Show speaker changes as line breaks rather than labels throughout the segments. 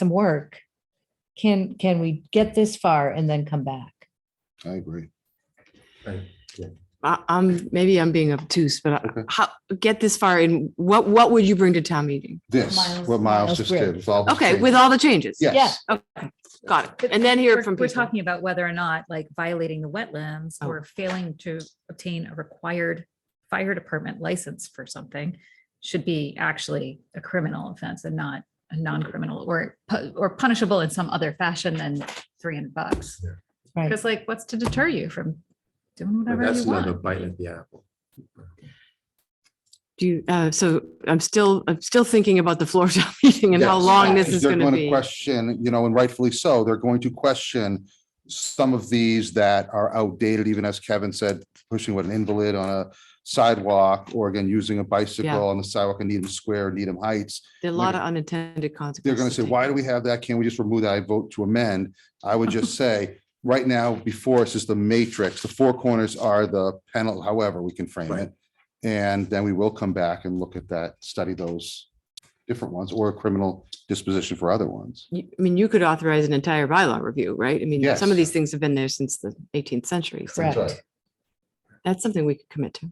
some work. Can, can we get this far and then come back?
I agree.
I- I'm, maybe I'm being obtuse, but
Okay.
I- how, get this far in, what, what would you bring to town meeting?
This,
Miles-
what Miles
Miles
just
Bridge.
did. was all the
Okay,
same.
with all the changes?
Yeah.
Yes,
Got it. And then hear
We're-
from
We're
people.
talking about whether or not like violating the wetlands
Oh.
or failing to obtain a required fire department license for something should be actually a criminal offense and not a non-criminal or, pu- or punishable in some other fashion than three hundred bucks.
Right.
Because like, what's to deter you from doing
But
whatever
That's
you
another
want?
bite at the apple.
Do you, uh, so I'm still, I'm still thinking about the floor town meeting and how
Yes.
long this is
they're
going to
going to
be.
question, you know, and rightfully so, they're going to question some of these that are outdated, even as Kevin said, pushing with an invalid on a sidewalk or again, using a bicycle on the sidewalk in Needham Square, Needham Heights.
There are a lot of unintended consequences.
They're going to say, why do we have that? Can't we just remove that? I vote to amend. I would just say, right now, before us is the matrix. The four corners are the panel, however we can frame
Right.
it. And then we will come back and look at that, study those different ones or a criminal disposition for other ones.
You- I mean, you could authorize an entire bylaw review, right? I mean, some
Yes.
of these things have been there since the 18th century. So
Correct.
right.
that's something we could commit to.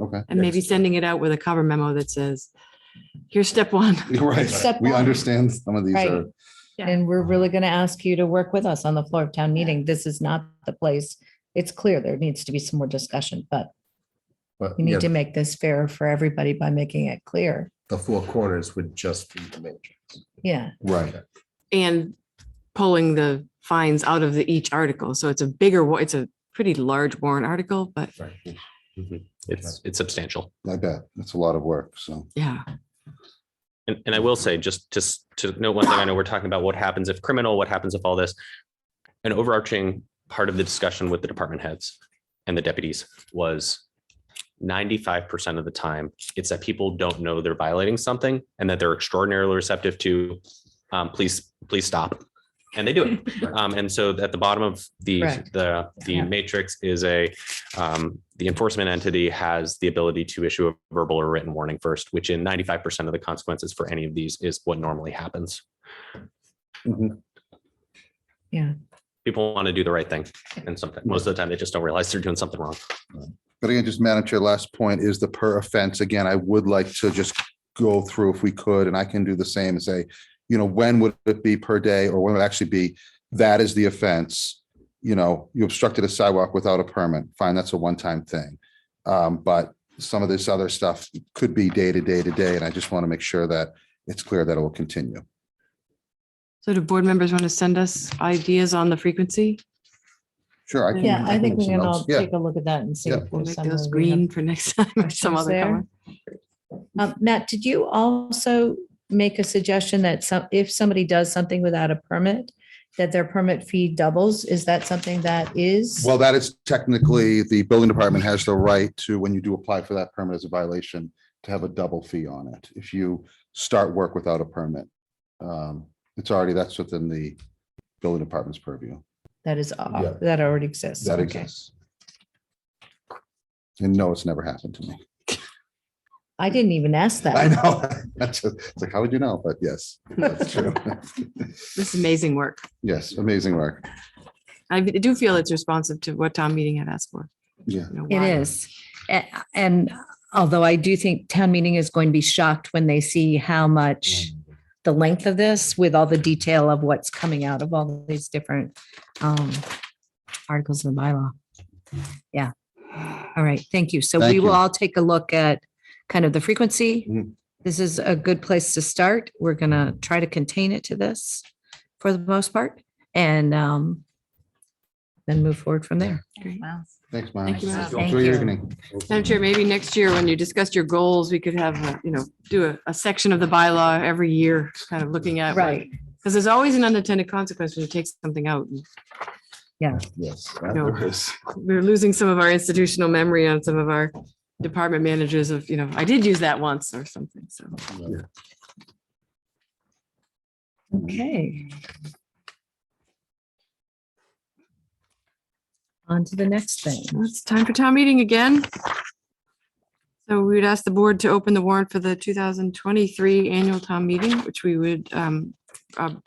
Okay.
And maybe sending it out with a cover memo that says, here's step one.
You're right.
Step
We
one.
understand some of these
Right.
are,
Yeah.
And we're really going to ask you to work with us on the floor of town meeting. This is not the place. It's clear there needs to be some more discussion, but
But
we need to
yeah,
make this fair for everybody by making it clear.
the four corners would just be the matrix.
Yeah,
right.
and pulling the fines out of the each article. So it's a bigger, wa- it's a pretty large warrant article, but
Right.
Mhm. It's, it's substantial.
I bet. That's a lot of work. So
yeah,
And, and I will say, just, just to note one thing, I know we're talking about what happens if criminal, what happens if all this. An overarching part of the discussion with the department heads and the deputies was ninety-five percent of the time, it's that people don't know they're violating something and that they're extraordinarily receptive to, um, please, please stop. And they do it. Um, and so at the bottom of the,
Correct.
the, the
Yeah.
matrix is a, um, the enforcement entity has the ability to issue a verbal or written warning first, which in ninety-five percent of the consequences for any of these is what normally happens. Mm-hmm.
yeah.
People want to do the right thing and sometimes, most of the time, they just don't realize they're doing something wrong.
But again, just Madam Chair, last point is the per offense. Again, I would like to just go through if we could, and I can do the same and say, you know, when would it be per day or when would it actually be? That is the offense. You know, you obstructed a sidewalk without a permit. Fine, that's a one-time thing. Um, but some of this other stuff could be day to day to day, and I just want to make sure that it's clear that it will continue.
so do board members want to send us ideas on the frequency?
Sure. I can-
Yeah, I
can
think
make
we
some
can
notes.
all
Yeah.
take a look at that and see.
Yeah.
if
We'll
there's
make
somewhere
those
we have
green for next time or some
questions
other
there.
color.
Um, Matt, did you also make a suggestion that some, if somebody does something without a permit, that their permit fee doubles? Is that something that is?
Well, that is technically, the building department has the right to, when you do apply for that permit as a violation, to have a double fee on it if you start work without a permit. Um, It's already, that's within the building department's purview.
That is, uh,
Yeah.
that already exists.
That
Okay.
exists. And no, it's never happened to me.
I didn't even ask
I
that.
know. That's just- it's like, how would you know? But yes, that's true.
This is amazing work.
Yes, amazing work.
I do feel it's responsive to what town meeting had asked for.
Yeah.
you know,
It
why.
is. A- And although I do think town meeting is going to be shocked when they see how much the length of this with all the detail of what's coming out of all these different um, articles of the bylaw. Yeah. All right. Thank you. So
Thank
we will
you.
all take a look at kind of the frequency.
Mhm.
This is a good place to start. We're going to try to contain it to this for the most part and um, then move forward from there.
Wow.
Thanks, Miles.
you, Miles.
Enjoy your evening.
Madam Chair, maybe next year when you discuss your goals, we could have, uh, you know, do a, a section of the bylaw every year, kind of looking at. Because there's always an unintended consequence when you take something out.
Yes.
No.
there is.
we're losing some of our institutional memory on some of our department managers of, you know, I did use that once or something, so.
Okay. On to the next thing.
Well, It's time for town meeting again. So we would ask the board to open the warrant for the two thousand twenty-three annual town meeting, which we would um, uh,